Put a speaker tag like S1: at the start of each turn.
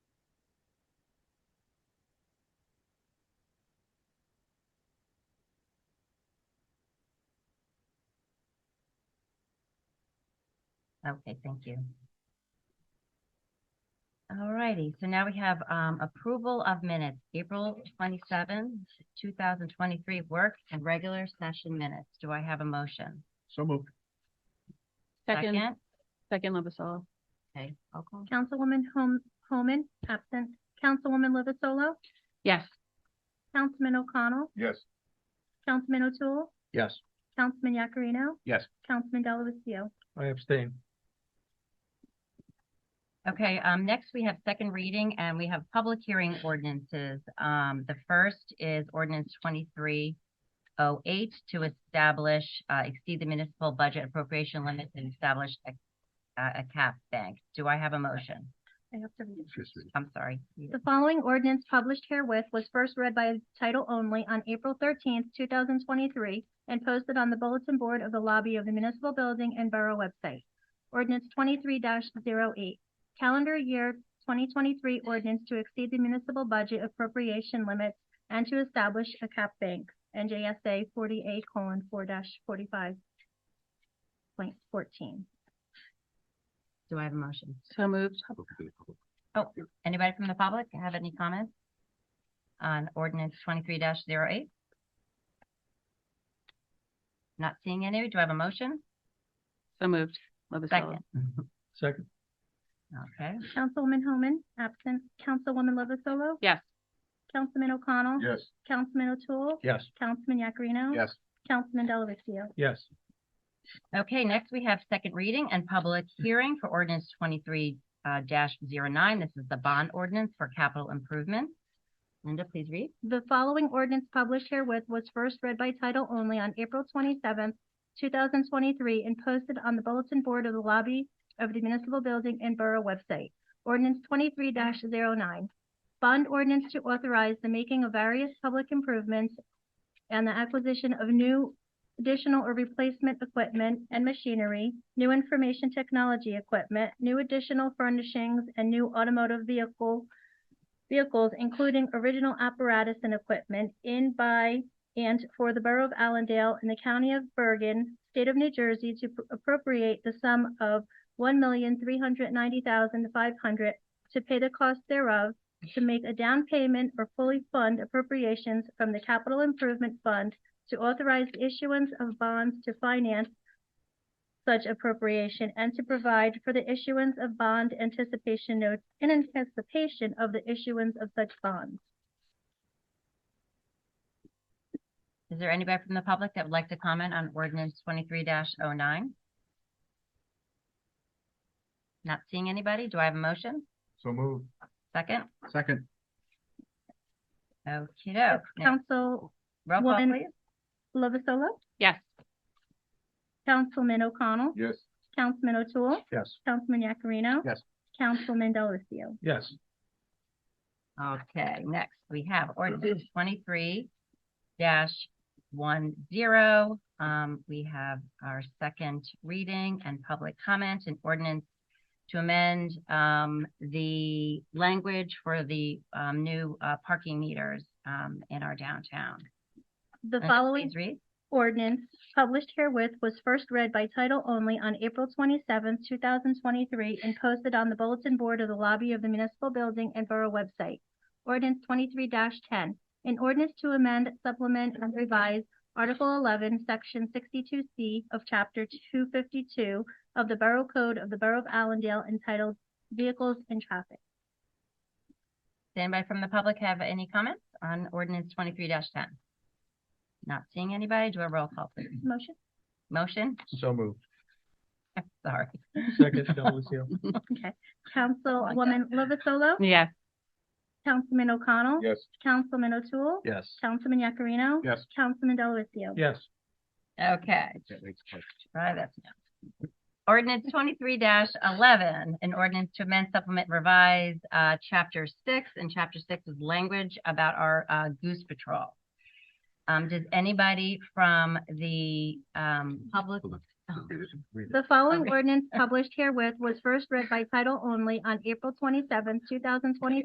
S1: Okay, thank you. All righty, so now we have um approval of minutes, April twenty-seventh, two thousand twenty-three work and regular session minutes. Do I have a motion?
S2: So moved.
S3: Second, second Lovasolo.
S1: Okay, roll call.
S4: Councilwoman Hom- Homan, absent. Councilwoman Lovasolo,
S3: Yes.
S4: Councilman O'Connell,
S2: Yes.
S4: Councilman O'Toole,
S2: Yes.
S4: Councilman Yakarino.
S2: Yes.
S4: Councilman Delavatio.
S2: I abstain.
S1: Okay, um, next we have second reading and we have public hearing ordinances. Um, the first is ordinance twenty-three oh eight to establish, uh, exceed the municipal budget appropriation limits and establish a, a a cap bank. Do I have a motion?
S4: I have to read.
S1: I'm sorry.
S4: The following ordinance published herewith was first read by title only on April thirteenth, two thousand twenty-three, and posted on the bulletin board of the lobby of the municipal building and borough website. Ordinance twenty-three 8 calendar year twenty twenty-three ordinance to exceed the municipal budget appropriation limits and to establish a cap bank, NJSA forty-eight colon four forty-five point fourteen.
S1: Do I have a motion?
S3: So moved.
S1: Anybody from the public have any comments on ordinance twenty-three 8 Not seeing any. Do I have a motion?
S3: So moved. Lovasolo.
S1: Second.
S2: Second.
S1: Okay.
S4: Councilwoman Homan, absent. Councilwoman Lovasolo?
S3: Yes.
S4: Councilman O'Connell?
S2: Yes.
S4: Councilman O'Toole?
S2: Yes.
S4: Councilman Yakarino?
S2: Yes.
S4: Councilman Delavatio?
S2: Yes.
S1: Okay, next we have second reading and public hearing for ordinance twenty-three uh dash zero nine. This is the bond ordinance for capital improvements. Linda, please read.
S4: The following ordinance published herewith was first read by title only on April twenty-seventh, two thousand twenty-three, and posted on the bulletin board of the lobby of the municipal building and borough website. Ordinance twenty-three 9 Bond ordinance to authorize the making of various public improvements and the acquisition of new additional or replacement equipment and machinery, new information technology equipment, new additional furnishings, and new automotive vehicle vehicles, including original apparatus and equipment in, by, and for the Borough of Allendale and the County of Bergen, State of New Jersey, to appropriate the sum of one million three hundred ninety thousand five hundred to pay the cost thereof, to make a down payment or fully fund appropriations from the Capital Improvement Fund to authorize the issuance of bonds to finance such appropriation and to provide for the issuance of bond anticipation notes in anticipation of the issuance of such bonds.
S1: Is there anybody from the public that would like to comment on ordinance twenty-three oh 9 Not seeing anybody. Do I have a motion?
S2: So moved.
S1: Second?
S2: Second.
S1: Okay, doke.
S4: Council
S1: Roll call,
S4: Woman-
S1: please.
S4: Lovasolo,
S3: Yes.
S4: Councilman O'Connell,
S2: Yes.
S4: Councilman O'Toole,
S2: Yes.
S4: Councilman Yakarino.
S2: Yes.
S4: Councilman Delavatio.
S2: Yes.
S1: Okay, next we have ordinance twenty-three dash one zero. Um, we have our second reading and public comment and ordinance to amend, um, the language for the, um, new, uh, parking meters, um, in our downtown.
S4: The
S1: Linda,
S4: following
S1: Please read.
S4: ordinance published herewith was first read by title only on April twenty-seventh, two thousand twenty-three, and posted on the bulletin board of the lobby of the municipal building and borough website. Ordinance twenty-three ten, an ordinance to amend, supplement, and revise Article eleven, Section sixty-two C of Chapter two fifty-two of the Borough Code of the Borough of Allendale entitled Vehicles and Traffic.
S1: Does anybody from the public have any comments on ordinance twenty-three ten? Not seeing anybody. Do a roll call, please.
S4: Motion?
S1: Motion?
S2: So moved.
S1: Sorry.
S2: Second, Delavatio.
S4: Councilwoman Lovasolo?
S3: Yes.
S4: Councilman O'Connell?
S2: Yes.
S4: Councilman O'Toole?
S2: Yes.
S4: Councilman Yakarino?
S2: Yes.
S4: Councilman Delavatio.
S2: Yes.
S1: Okay. Right, that's no. Ordinance twenty-three eleven, an ordinance to amend, supplement, revise, uh, chapter six, and chapter six is language about our, uh, goose patrol. Um, does anybody from the, um, public? Oh.
S4: The following
S1: Okay.
S4: ordinance published herewith was first read by title only on April twenty-seventh, two thousand twenty